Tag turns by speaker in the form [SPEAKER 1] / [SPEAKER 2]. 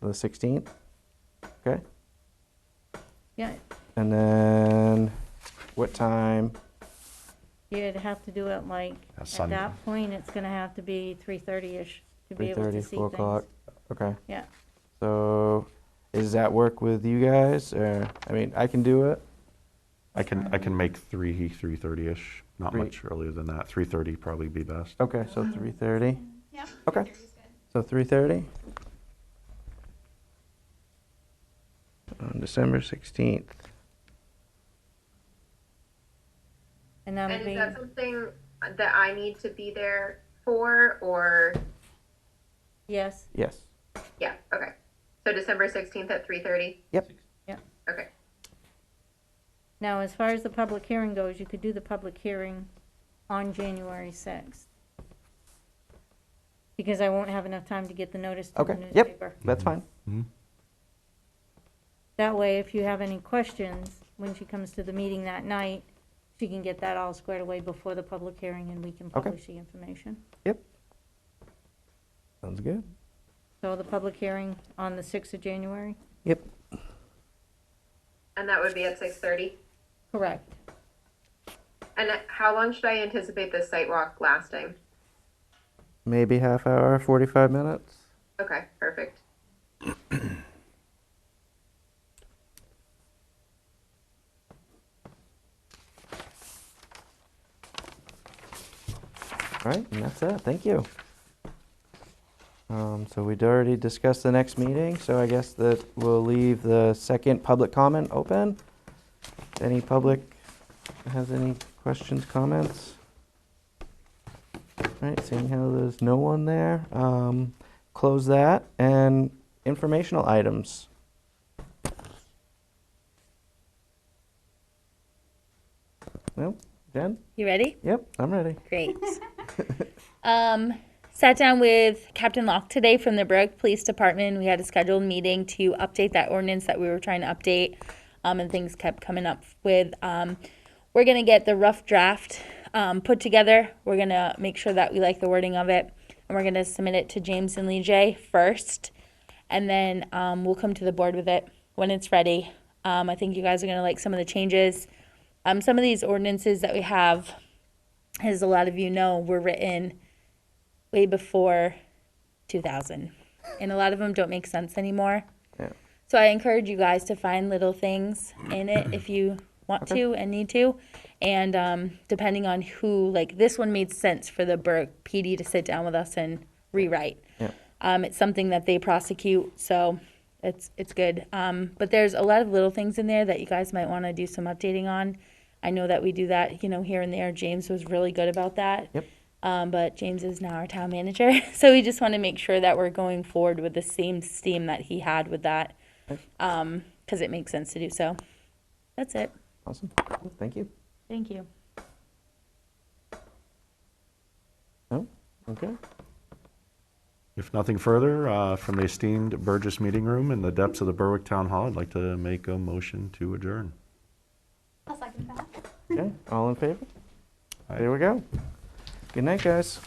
[SPEAKER 1] the 16th. Okay.
[SPEAKER 2] Yeah,
[SPEAKER 1] And then what time?
[SPEAKER 2] you'd have to do it like,
[SPEAKER 3] A
[SPEAKER 2] at
[SPEAKER 3] Sunday.
[SPEAKER 2] that point, it's gonna have to be three thirty-ish to be able to
[SPEAKER 1] 3:30,
[SPEAKER 2] see
[SPEAKER 1] 4
[SPEAKER 2] things.
[SPEAKER 1] o'clock? Okay.
[SPEAKER 2] Yeah,
[SPEAKER 1] So is that work with you guys? Or, I mean, I can do it.
[SPEAKER 3] I can, I can make three, three thirty-ish, not
[SPEAKER 1] Three.
[SPEAKER 3] much earlier than that. Three thirty probably be best.
[SPEAKER 1] Okay,
[SPEAKER 2] Uh-huh.
[SPEAKER 1] so 3:30.
[SPEAKER 4] Yep.
[SPEAKER 1] Okay.
[SPEAKER 4] 3:30 is good.
[SPEAKER 1] So 3:30? On December 16th.
[SPEAKER 2] and that'll
[SPEAKER 5] And
[SPEAKER 2] be,
[SPEAKER 5] is that something that I need to be there for, or,
[SPEAKER 2] yes,
[SPEAKER 1] Yes.
[SPEAKER 5] yeah, okay. So December sixteenth at three thirty,
[SPEAKER 1] Yep.
[SPEAKER 5] okay.
[SPEAKER 2] now, as far as the public hearing goes, you could do the public hearing on January sixth. Because I won't have enough time to get the notice to the
[SPEAKER 1] Okay, yep.
[SPEAKER 2] newspaper.
[SPEAKER 1] That's fine.
[SPEAKER 2] That way, if you have any questions, when she comes to the meeting that night, she can get that all squared away before the public hearing and we can
[SPEAKER 1] Okay.
[SPEAKER 2] publish the information.
[SPEAKER 1] Yep. Sounds good.
[SPEAKER 2] So the public hearing on the sixth of January?
[SPEAKER 1] Yep.
[SPEAKER 5] And that would be at six thirty?
[SPEAKER 2] Correct.
[SPEAKER 5] And how long should I anticipate this site walk lasting?
[SPEAKER 1] Maybe half hour, 45 minutes.
[SPEAKER 5] Okay, perfect.
[SPEAKER 1] All right, and that's it. Thank you. Um, so we'd already discussed the next meeting, so I guess that we'll leave the second public comment open. Any public has any questions, comments? All right, seeing how there's no one there, um, close that and informational items. Well, Jen?
[SPEAKER 6] You ready?
[SPEAKER 1] Yep, I'm ready.
[SPEAKER 6] Great. um, sat down with Captain Locke today from the Berwick Police Department. We had a scheduled meeting to update that ordinance that we were trying to update, um, and things kept coming up with. Um, we're gonna get the rough draft um, put together. We're gonna make sure that we like the wording of it, and we're gonna submit it to James and Lee J first, and then um, we'll come to the board with it when it's ready. Um, I think you guys are gonna like some of the changes. Um, some of these ordinances that we have as a lot of you know, were written way before 2000. And a lot of them don't make sense anymore.
[SPEAKER 1] Yeah.
[SPEAKER 6] So I encourage you guys to find little things in it if you want to and need to. And um, depending on who, like this one made sense for the Burke PD to sit down with us and rewrite.
[SPEAKER 1] Yeah.
[SPEAKER 6] Um, it's something that they prosecute, so it's it's good. Um, but there's a lot of little things in there that you guys might want to do some updating on. I know that we do that, you know, here and there. James was really good about that.
[SPEAKER 1] Yep.
[SPEAKER 6] Um, but James is now our town manager, so we just want to make sure that we're going forward with the same steam that he had with that, because um, it makes sense to do so. That's it.
[SPEAKER 1] Awesome. Thank you.
[SPEAKER 6] Thank you.
[SPEAKER 1] Oh, okay.
[SPEAKER 3] If nothing further, uh, from the esteemed Burgess Meeting Room in the depths of the Berwick Town Hall, I'd like to make a motion to adjourn.
[SPEAKER 4] I'll second that.
[SPEAKER 1] Okay. All in favor?
[SPEAKER 3] Aye.
[SPEAKER 1] There we go. Good night, guys.